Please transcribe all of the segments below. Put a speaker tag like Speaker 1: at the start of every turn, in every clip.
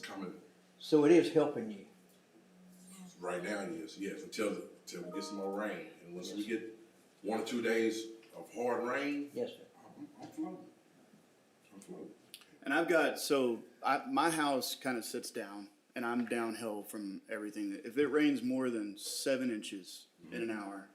Speaker 1: coming,
Speaker 2: So it is helping you.
Speaker 1: right now it is, yes, until, until we get some more rain. And once we get one or two days of hard rain,
Speaker 2: Yes, sir.
Speaker 1: I'm, I'm floating. I'm floating.
Speaker 3: And I've got, so I, my house kind of sits down and I'm downhill from everything. If it rains more than seven inches in an hour,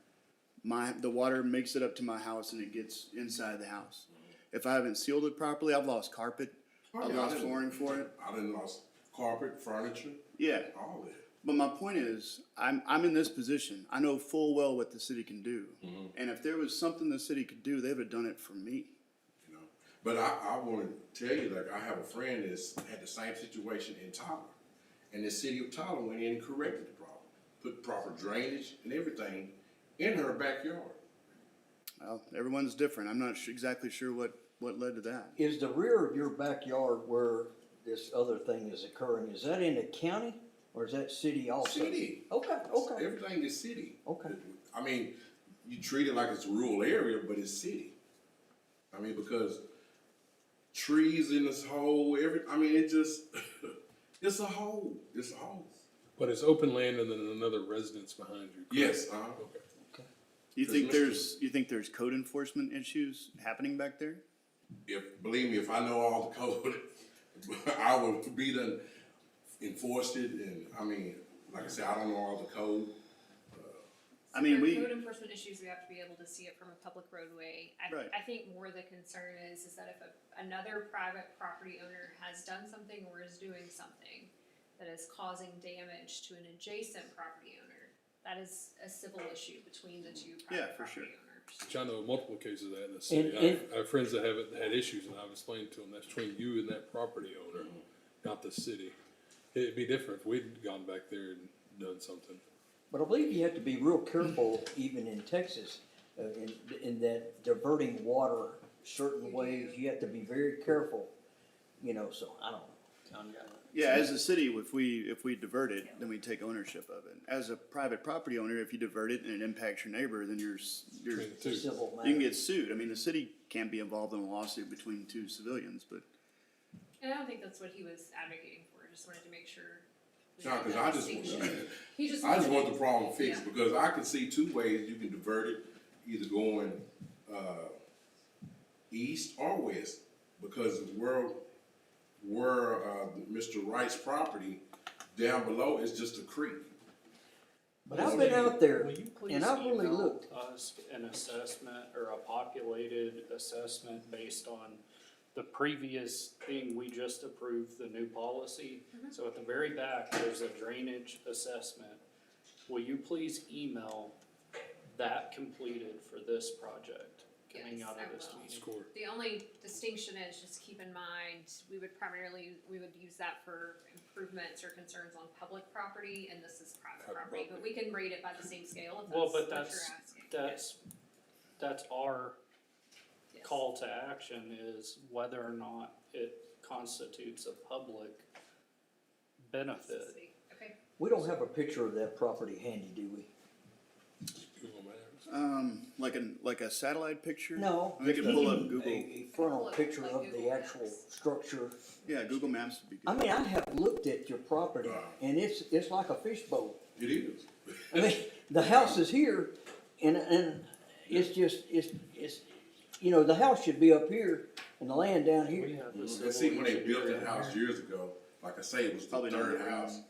Speaker 3: my, the water makes it up to my house and it gets inside the house. If I haven't sealed it properly, I've lost carpet. I've
Speaker 1: Oh, yeah, I
Speaker 3: lost
Speaker 1: didn't-
Speaker 3: flooring for it.
Speaker 1: I done lost carpet, furniture,
Speaker 3: Yeah.
Speaker 1: all that.
Speaker 3: But my point is, I'm, I'm in this position. I know full well what the city can do. And if there was something the city could do, they would have done it for me.
Speaker 1: you know. But I, I want to tell you, like, I have a friend that's had the same situation in Tyler. And the city of Tyler went in and corrected the problem, put proper drainage and everything in her backyard.
Speaker 3: Well, everyone's different. I'm not su- exactly sure what, what led to that.
Speaker 2: Is the rear of your backyard where this other thing is occurring, is that in the county or is that city also?
Speaker 1: City.
Speaker 2: Okay, okay.
Speaker 1: Everything is city.
Speaker 2: Okay.
Speaker 1: I mean, you treat it like it's a rural area, but it's city. I mean, because trees in this hole, every, I mean, it just, it's a hole, it's a hole.
Speaker 4: But it's open land and then another residence behind you. correct?
Speaker 1: Yes, uh,
Speaker 3: You think
Speaker 1: There's
Speaker 3: there's, you think there's code enforcement issues happening back there?
Speaker 1: if, believe me, if I know all the code, I would be done enforced it and, I mean, like I said, I don't know all the code.
Speaker 3: I mean,
Speaker 5: There are
Speaker 3: we-
Speaker 5: Code enforcement issues, we have to be able to see it from a public roadway. I,
Speaker 3: Right.
Speaker 5: I think more the concern is, is that if a, another private property owner has done something or is doing something that is causing damage to an adjacent property owner, that is a civil issue between the two
Speaker 3: Yeah,
Speaker 5: private
Speaker 3: for sure.
Speaker 5: property owners.
Speaker 4: Which I know multiple cases of that in the city.
Speaker 2: And-
Speaker 4: I, have, I have friends that haven't had issues, and I've explained to them that's between you and that property owner,
Speaker 1: Mm-hmm.
Speaker 4: not the city. It'd be different if we'd gone back there and done something.
Speaker 2: But I believe you have to be real careful even in Texas, uh, in, in that diverting water certain ways, you have to be very careful, you know, so I don't. I'm-
Speaker 3: Yeah, as a city, if we, if we divert it, then we take ownership of it. As a private property owner, if you divert it and it impacts your neighbor, then you're, s- you're,
Speaker 4: Between the
Speaker 3: you
Speaker 4: two.
Speaker 2: Civil matter.
Speaker 3: can get sued. I mean, the city can't be involved in a lawsuit between two civilians, but
Speaker 5: And I don't think that's what he was advocating for, just wanted to make sure. we
Speaker 1: No,
Speaker 5: had
Speaker 1: 'cause
Speaker 5: that
Speaker 1: I just want-
Speaker 5: distinction. He just.
Speaker 1: I just
Speaker 5: wanted-
Speaker 1: want the problem fixed,
Speaker 5: Yeah.
Speaker 1: because I can see two ways you can divert it, either going, uh, east or west, because where, where, uh, Mr. Wright's property, down below is just a creek.
Speaker 2: But I've been out there
Speaker 6: Will you please
Speaker 2: and I've really
Speaker 6: email
Speaker 2: looked.
Speaker 6: Us an assessment or a populated assessment based on the previous thing we just approved, the new policy.
Speaker 5: Mm-hmm.
Speaker 6: So at the very back, there's a drainage assessment. Will you please email that completed for this project coming
Speaker 5: Yes,
Speaker 6: out
Speaker 5: I
Speaker 6: of this
Speaker 5: will.
Speaker 6: meeting?
Speaker 4: Score.
Speaker 5: The only distinction is just keep in mind, we would primarily, we would use that for improvements or concerns on public property, and this is private
Speaker 4: Private
Speaker 5: property, but we can rate it by the same scale if
Speaker 6: Well,
Speaker 5: that's what
Speaker 6: but
Speaker 5: you're
Speaker 6: that's,
Speaker 5: asking.
Speaker 6: that's, that's our
Speaker 5: Yes.
Speaker 6: call to action is whether or not it constitutes a public benefit.
Speaker 5: Okay,
Speaker 2: We don't have a picture of that property handy, do we?
Speaker 4: Google Maps.
Speaker 3: um, like a, like a satellite picture?
Speaker 2: No.
Speaker 3: We could pull up
Speaker 2: A-
Speaker 3: Google.
Speaker 2: A frontal
Speaker 5: Look,
Speaker 2: picture
Speaker 5: like
Speaker 2: of the
Speaker 5: Google
Speaker 2: actual
Speaker 5: Maps.
Speaker 2: structure.
Speaker 3: Yeah, Google Maps would be
Speaker 2: I
Speaker 3: good.
Speaker 2: mean, I have looked at your property and it's, it's like a fishbowl.
Speaker 1: It is.
Speaker 2: I mean, the house is here and, and it's just, it's, it's, you know, the house should be up here and the land down
Speaker 6: We
Speaker 2: here.
Speaker 6: have the
Speaker 1: And
Speaker 6: civil
Speaker 1: see, when they built
Speaker 6: engineer
Speaker 1: that
Speaker 6: in
Speaker 1: house
Speaker 6: there.
Speaker 1: years ago, like I say, it was the
Speaker 3: Probably not
Speaker 1: third
Speaker 3: very
Speaker 1: house,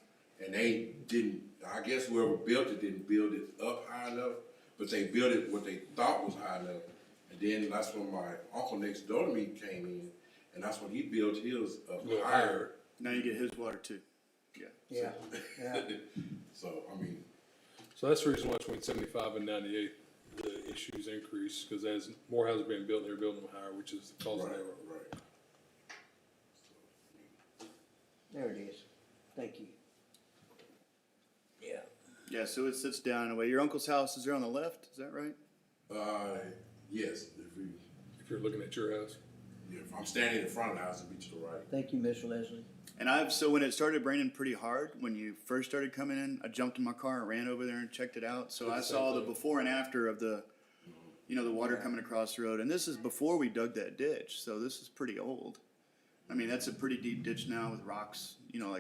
Speaker 1: and they didn't, I guess whoever built it didn't build it up high enough, but they built it what they thought was high enough. And then that's when my uncle next door to me came in, and that's when he built his up
Speaker 4: Little
Speaker 1: higher,
Speaker 3: Now you get his water too. Yeah.
Speaker 2: Yeah, yeah.
Speaker 1: so, I mean,
Speaker 4: So that's the reason why between seventy-five and ninety-eight, the issues increase, because as more houses being built, they're building them higher, which is
Speaker 1: right,
Speaker 4: causing
Speaker 1: right.
Speaker 4: that.
Speaker 2: There it is. Thank you. Yeah.
Speaker 3: Yeah, so it sits down in a way. Your uncle's house is there on the left, is that right?
Speaker 1: Uh, yes, if you,
Speaker 4: If you're looking at your house,
Speaker 1: if I'm standing in front of the house, it'd be to the right.
Speaker 2: Thank you, Miss Leslie.
Speaker 3: And I've so when it started raining pretty hard, when you first started coming in, I jumped in my car and ran over there and checked it out. So I saw the before and after of the, you know, the water coming across the road. And this is before we dug that ditch, so this is pretty old. I mean, that's a pretty deep ditch now with rocks, you know, like